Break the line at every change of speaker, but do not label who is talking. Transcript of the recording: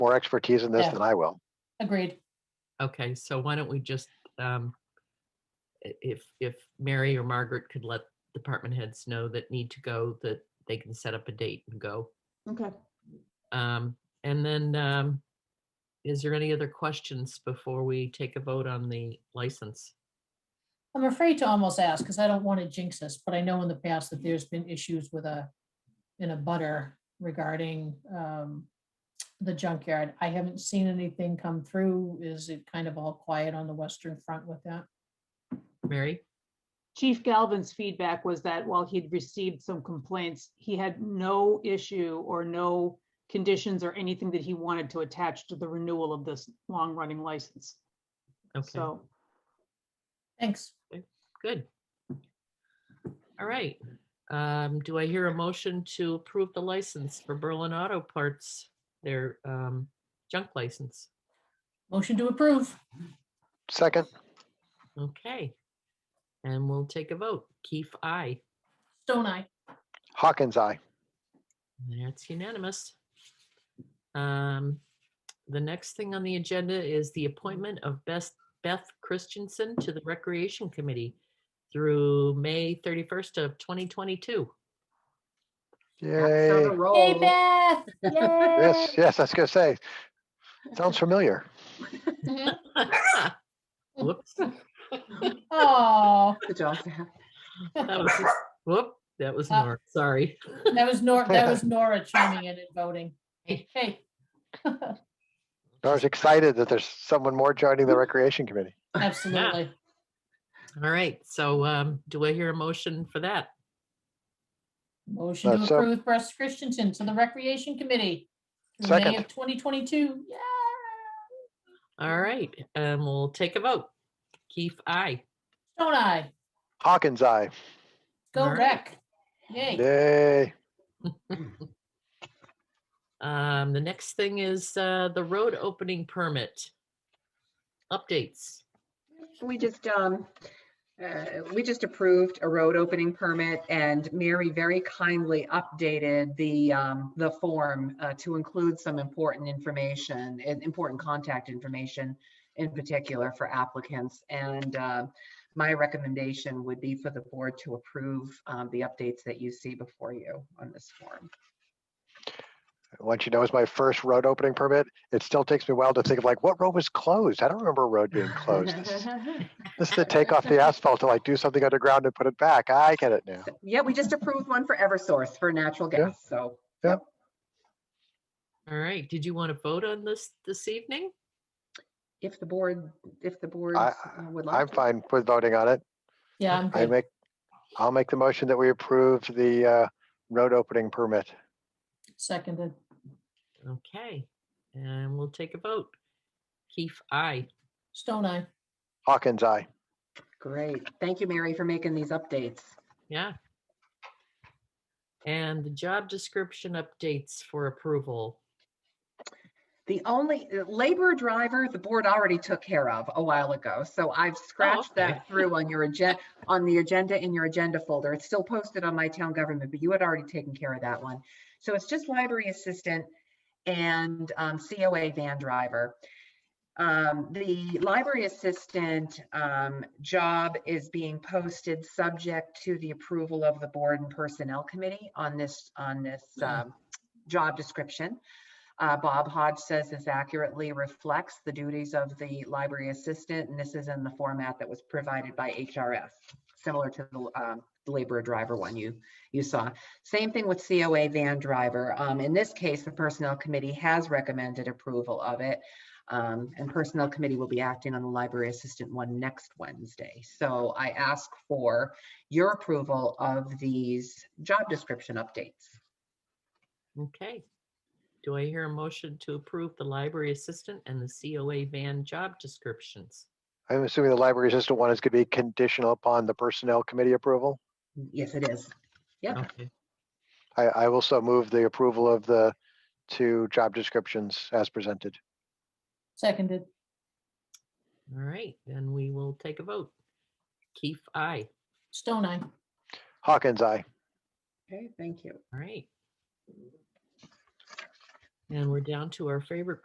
more expertise in this
Yeah.
than I will.
Agreed.
Okay, so why don't we just, um, i- if, if Mary or Margaret could let department heads know that need to go, that they can set up a date and go.
Okay.
Um, and then, um, is there any other questions before we take a vote on the license?
I'm afraid to almost ask because I don't want to jinx us, but I know in the past that there's been issues with a, in a butter regarding um, the junkyard. I haven't seen anything come through. Is it kind of all quiet on the western front with that?
Mary?
Chief Galvin's feedback was that while he'd received some complaints, he had no issue or no conditions or anything that he wanted to attach to the renewal of this long-running license.
Okay,
So
Thanks.
good. All right, um, do I hear a motion to approve the license for Berlin Auto Parts, their, um, junk license?
Motion to approve.
Second,
Okay. And we'll take a vote. Keefe, aye.
Stone Eye.
Hawkins, aye.
That's unanimous. Um, The next thing on the agenda is the appointment of Beth Beth Christensen to the Recreation Committee through May 31st of 2022.
That's on
Yay.
a
Hey,
Oh.
roll.
Beth.
Yes, yes, I was gonna say. Sounds familiar.
Mhm.
Whoops.
Oh,
Good job, Beth.
that was just- Whoop, that was
Uh,
Nora, sorry.
that was Nora, that was Nora chiming in and voting. Hey, hey.
I was excited that there's someone more joining the Recreation Committee.
absolutely.
All right, so um, do I hear a motion for that?
Motion to
That's up.
approve Russ Christensen to the Recreation Committee. through May
Second.
of Twenty twenty-two, yeah.
All right, and we'll take a vote. Keefe, aye.
Don't I?
Hawkins, aye.
Go
All right.
rec.
Yay.
Yay.
Um, the next thing is, uh, the road opening permit. Updates.
We just, um, uh, we just approved a road opening permit and Mary very kindly updated the, um, the form uh, to include some important information and important contact information in particular for applicants. And, uh, my recommendation would be for the board to approve, um, the updates that you see before you on this form.
Once you know it's my first road opening permit, it still takes me a while to think of like, what road was closed? I don't remember a road being closed. This this is to take off the asphalt to like do something underground and put it back. I get it now.
Yeah, we just approved one for Eversource for natural
Yeah.
gas, so.
All right, did you want to vote on this this evening?
If the board, if the board would like.
I'm
to.
fine with voting on it.
Yeah, I'm
I
good.
make, I'll make the motion that we approve the uh, road opening permit.
Seconded.
Okay, and we'll take a vote. Keefe, aye.
Stone Eye.
Hawkins, aye.
Great. Thank you, Mary, for making these updates.
Yeah. And the job description updates for approval.
The only uh, labor driver, the board already took care of a while ago. So I've scratched
okay.
that through on your agenda, on the agenda in your agenda folder. It's still posted on my town government, but you had already taken care of that one. So it's just library assistant and um, COA van driver. Um, The library assistant um, job is being posted subject to the approval of the board and personnel committee on this, on this
Mhm.
um, job description. Uh, Bob Hodge says this accurately reflects the duties of the library assistant, and this is in the format that was provided by HRF, similar to the um, laborer driver one you, you saw. Same thing with COA van driver. Um, In this case, the Personnel Committee has recommended approval of it. um, And Personnel Committee will be acting on the library assistant one next Wednesday. So I ask for your approval of these job description updates.
Okay. Do I hear a motion to approve the library assistant and the COA van job descriptions?
I'm assuming the library assistant one is going to be conditional upon the personnel committee approval.
Yes, it is. Yep,
Okay,
I, I will so move the approval of the two job descriptions as presented.
Seconded.
all right, then we will take a vote. Keefe, aye.
Stone Eye.
Hawkins, aye.
okay, thank you.
All right. And we're down to our favorite